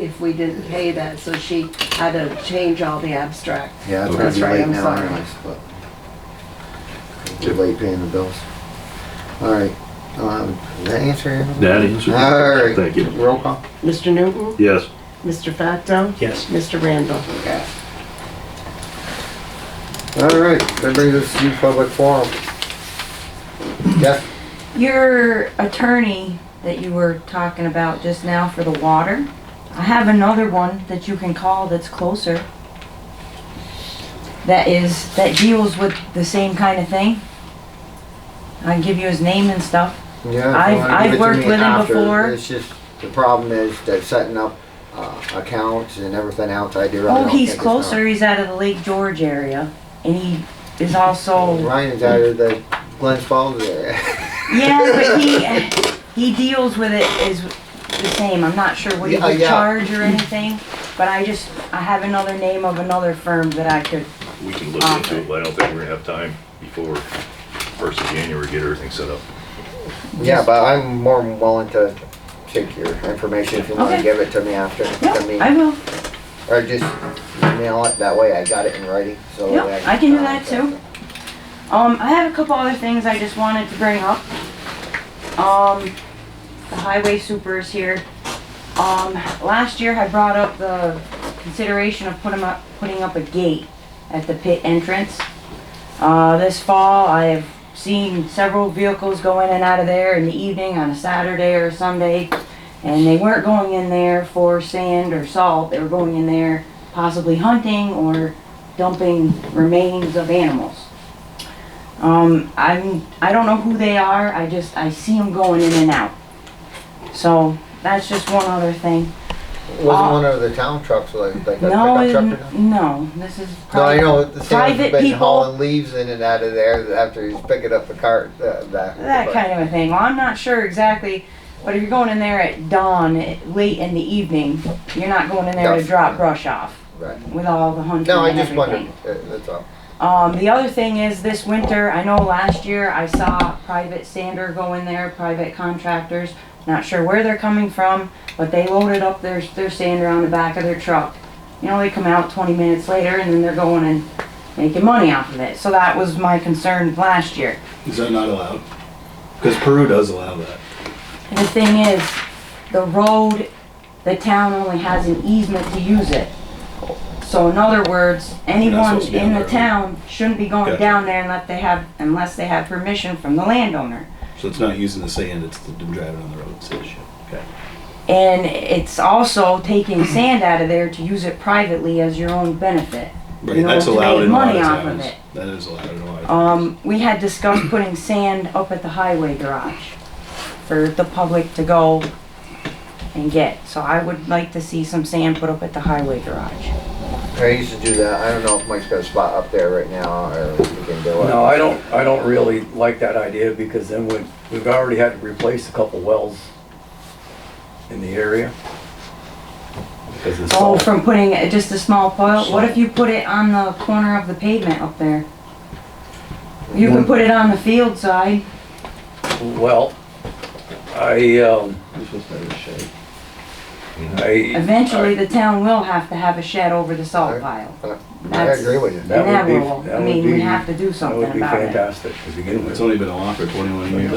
if we didn't pay that, so she had to change all the abstract. Yeah, it's That's gonna be right, late I'm now sorry. anyways, but. Too late paying the bills. Alright, um, did that answer? everything? That answers. Alright. Thank you. Roll call? Mr. Newton? Yes. Mr. Facto? Yes. Mr. Randall? Alright, that brings us to public forum. Jeff? Your attorney that you were talking about just now for the water, I have another one that you can call that's closer. That is, that deals with the same kind of thing. I can give you his name and stuff. Yeah, if you I've- wanna I've give it to worked me with him after, before. It's just, the problem is they're setting up, uh, accounts and everything else. I do. really Oh, don't he's think it's not- closer, he's out of the Lake George area, and he is also, Ryan's out of the Glens Falls area. yeah, but he, he deals with it is the same, I'm not sure what he Yeah, would yeah. charge or anything, but I just, I have another name of another firm that I could We can look into it, but I don't think we're gonna have time before first of January, to get everything set up. Yeah, but I'm more than willing to take your information if you wanna Okay. give it to me after. to me. Yep, I will. Or just email it, that way I got it in writing, so. Yep, that I can do that contact too. them. Um, I have a couple other things I just wanted to bring up. Um, the highway super is here. Um, last year I brought up the consideration of putting up, putting up a gate at the pit entrance. Uh, this fall, I have seen several vehicles go in and out of there in the evening on a Saturday or Sunday. And they weren't going in there for sand or salt, they were going in there possibly hunting or dumping remains of animals. Um, I'm, I don't know who they are, I just, I see them going in and out. So, that's just one other thing. Wasn't Uh, one of the town trucks like, like a No, pickup truck or it- nothing? no, this is No, I private. know, the same private been people- hauling leaves in and out of there after he's picking up the cart, uh, that. That but- kind of a thing. Well, I'm not sure exactly, but if you're going in there at dawn, eh, late in the evening, you're not going in there to Duff. drop brush off Right. with all the hunting No, I and just wondered, everything. uh, that's all. Um, the other thing is this winter, I know last year I saw private sander go in there, private contractors. Not sure where they're coming from, but they loaded up their, their sander on the back of their truck. You know, they come out twenty minutes later and then they're going and making money off of it. So that was my concern last year. Is that not allowed? Because Peru does allow that. And the thing is, the road, the town only has an easement to use it. So in other words, anyone supposed to be on in the that road. town shouldn't be going Gotcha. down there unless they have, unless they have permission from the landowner. So it's not using the sand, it's the driving on the road, it's the issue. Okay. And it's also taking sand out of there to use it privately as your own benefit. Right, You know, that's to allowed make in a lot money of off of towns. it. That is allowed in a lot of towns. Um, we had discussed putting sand up at the highway garage for the public to go and get. So I would like to see some sand put up at the highway garage. I used to do that, I don't know if Mike's got a spot up there right now, or we can do it. No, I don't, I don't really like that idea because then we, we've already had to replace a couple wells in the area. Because it's Oh, all, from putting it- just a small pile, what if you put it on the corner of the pavement up there? You can put it on the field side, well, I, um, This was better shape. I, eventually the town will have to have a shed over the salt pile. I agree with you. That would be- Inevitable, I that would mean, we be- have to do that would something be about it. fantastic to begin It's with. only been allowed for twenty-one years.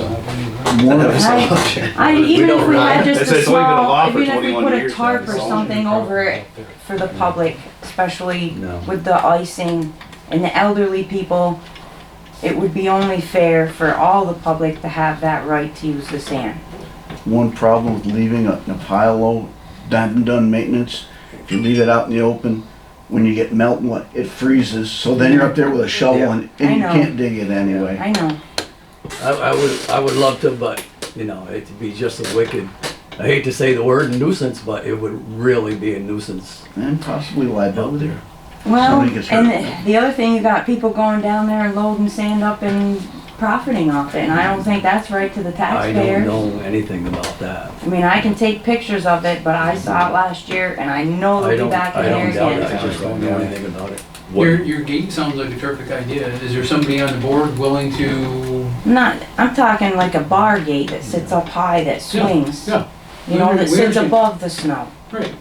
One of Right. I, even if we had just It's- a it's only been small, allowed for even if we 21 put a years now, tarp it's or all something over it for the public, especially No. with the icing and the elderly people, it would be only fair for all the public to have that right to use the sand. one problem with leaving a, a pile of done, done maintenance. If you leave it out in the open, when you get melt, and what- it freezes. So then you're up there with a shovel and, I and you know. can't dig it anyway. I know, I, I would, I would love to, but, you know, it'd be just a wicked, I hate to say the word nuisance, but it would really be a nuisance And possibly out liability. there. well, Somebody gets hurt. and the- the other thing, you got people going down there and loading sand up and profiting off it, and I don't think that's right to the I taxpayer. don't know anything about that. I mean, I can take pictures of it, but I saw it last year and I know I they'll don't, be back I in there don't doubt it, I again. just don't know anything about it. What- Your, your gate sounds like a terrific idea. Is there somebody on the board willing to? Not, I'm talking like a bar gate that sits up high that swings. yeah. You know, We- that we sits understand. above the snow. Right.